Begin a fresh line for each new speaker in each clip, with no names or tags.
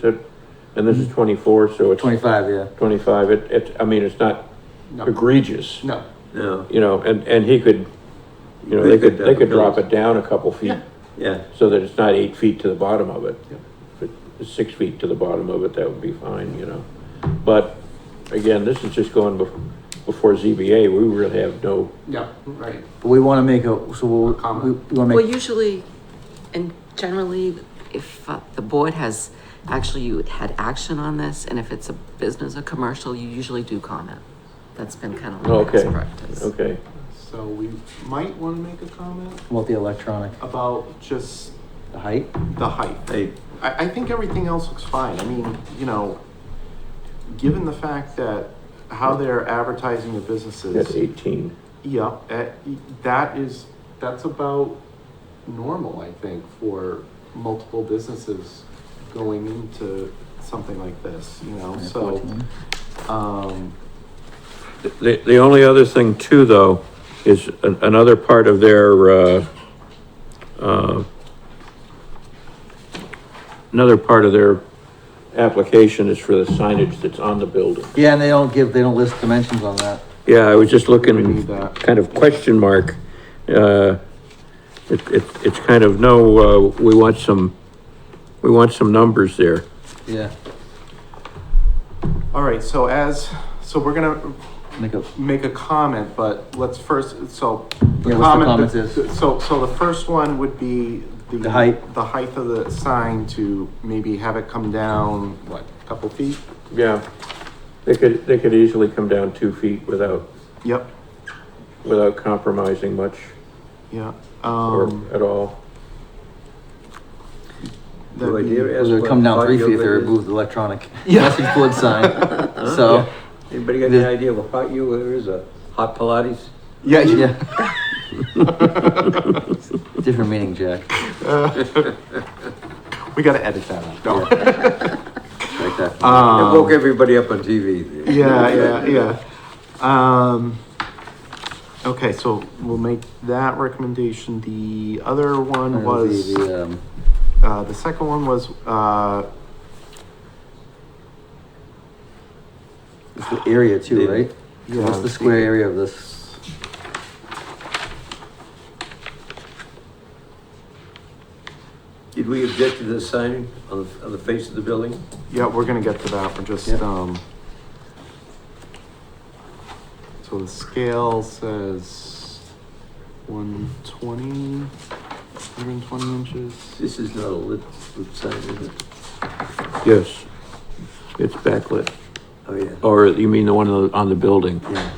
said, and this is
Mm-hmm.
twenty-four, so it's
Twenty-five, yeah.
twenty-five, it, it, I mean, it's not
No,
egregious.
no,
No.
You know, and, and he could, you know, they could, they could drop it down a couple feet,
Yeah.
Yeah,
so that it's not eight feet to the bottom of it.
Yep.
If it's six feet to the bottom of it, that would be fine, you know, but, again, this is just going bef- before ZBA, we really have no,
yeah, right.
But we want to make a, so we'll, we
Comment.
we want to
Well,
make,
usually, and generally, if uh, the board has, actually you had action on this, and if it's a business or commercial, you usually do comment. That's been kind of like
Okay.
best practice.
okay,
So we might want to make a comment
about the electronic,
about just
the height.
the height.
I,
I, I think everything else looks fine. I mean, you know, given the fact that how they're advertising the
that's
businesses,
eighteen.
yeah, eh, that is, that's about normal, I think, for multiple businesses going into something like this, you know, so,
14.
um,
The, the only other thing too, though, is an- another part of their, uh, uh, another part of their application is for the signage that's on the building.
Yeah, and they don't give, they don't list dimensions on that.
Yeah, I was just
we
looking,
need that.
kind of question mark. Uh, it, it, it's kind of, no, uh, we want some, we want some numbers there.
Yeah,
All right, so as, so we're gonna
make a,
make a comment, but let's first, so.
Yeah, what's the comment is?
So, so the first one would be the.
The height.
The height of the sign to maybe have it come down, what, a couple feet?
Yeah. They could, they could easily come down two feet without,
Yep,
without compromising much
yeah.
or
Um,
at all.
no
that'd be-
idea.
it
as
would
what
come down three
hot
feet if they
yoga is.
removed the electronic message board sign. So,
Anybody got any idea what hot yoga is, a hot Pilates?
Yeah, yeah,
yeah. Different meaning, Jack.
we gotta edit that out. No.
Like that.
It woke everybody up on TV.
Um, Yeah, yeah, yeah. Um, okay, so we'll make that recommendation. The other one
It'll
was.
be the, um,
Uh, the second one was, uh,
It's the area too,
The-
right?
yeah,
What's the square area of this?
Did we object to the sign on, the- on the face of the building?
yeah, we're gonna get to that, we're just,
Yeah.
um, so the scale says one twenty, hundred and twenty inches.
This is not a lit, lit sign, is it?
Yes, it's backlit,
Oh, yeah.
or you mean the one on the, on the building?
Yeah,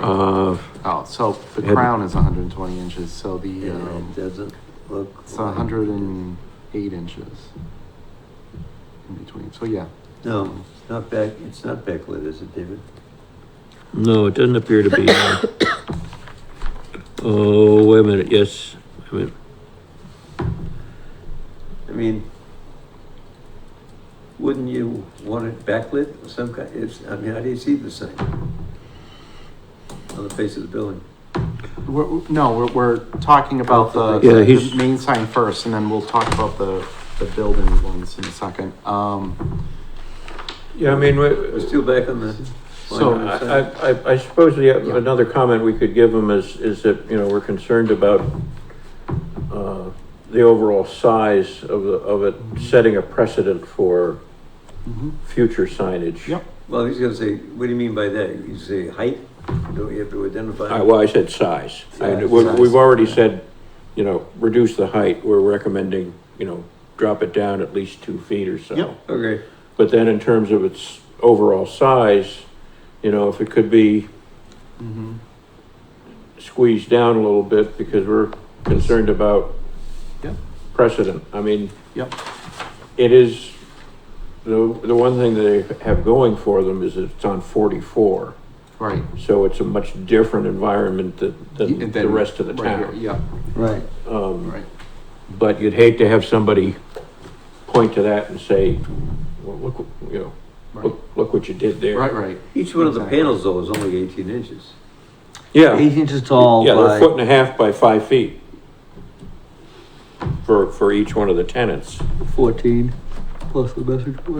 Uh,
Oh, so the
Yeah.
crown is hundred and twenty inches, so the,
yeah,
um,
it doesn't look.
it's hundred and eight inches in between, so yeah.
No, it's not back, it's not backlit, is it, David?
no, it doesn't appear to be. Oh, wait a minute, yes, wait a minute.
I mean, wouldn't you want it backlit of some kind? It's, I mean, how do you see the sign? On the face of the building?
We're, no, we're, we're talking about the,
Yeah,
the
he's-
main sign first, and then we'll talk about the, the building ones in a second. Um,
Yeah, I mean,
We're
we-
still back on the. Oh,
so,
so,
I, I, I suppose the,
Yeah.
another comment we could give them is, is that, you know, we're concerned about, uh, the overall size of the, of it, setting a precedent for
Mhm.
future signage.
Yep.
Well, he's gonna say, what do you mean by that? You say height? Don't you have to identify?
I, Uh, well, I said size. I-
Size.
we- We've already said, you know, reduce the height. We're recommending, you know, drop it down at least two feet or so.
Yep.
Okay,
But then in terms of its overall size, you know, if it could be
mhm.
squeezed down a little bit because we're concerned about
Yep.
precedent. I mean,
Yep.
it is, the, the one thing they have going for them is it's on forty-four.
right.
So it's a much different environment than, than
And
the
then-
rest of the
right
town.
here, Yeah,
Right.
Um,
right.
But you'd hate to have somebody point to that and say, well, look, you know,
Right,
look, look what you did there.
right, right.
each one of the
Exactly.
panels though is only eighteen inches.
Yeah,
Eight inches tall
yeah, they're a foot and
by,
a half by five feet for, for each one of the tenants.
fourteen, plus the message board.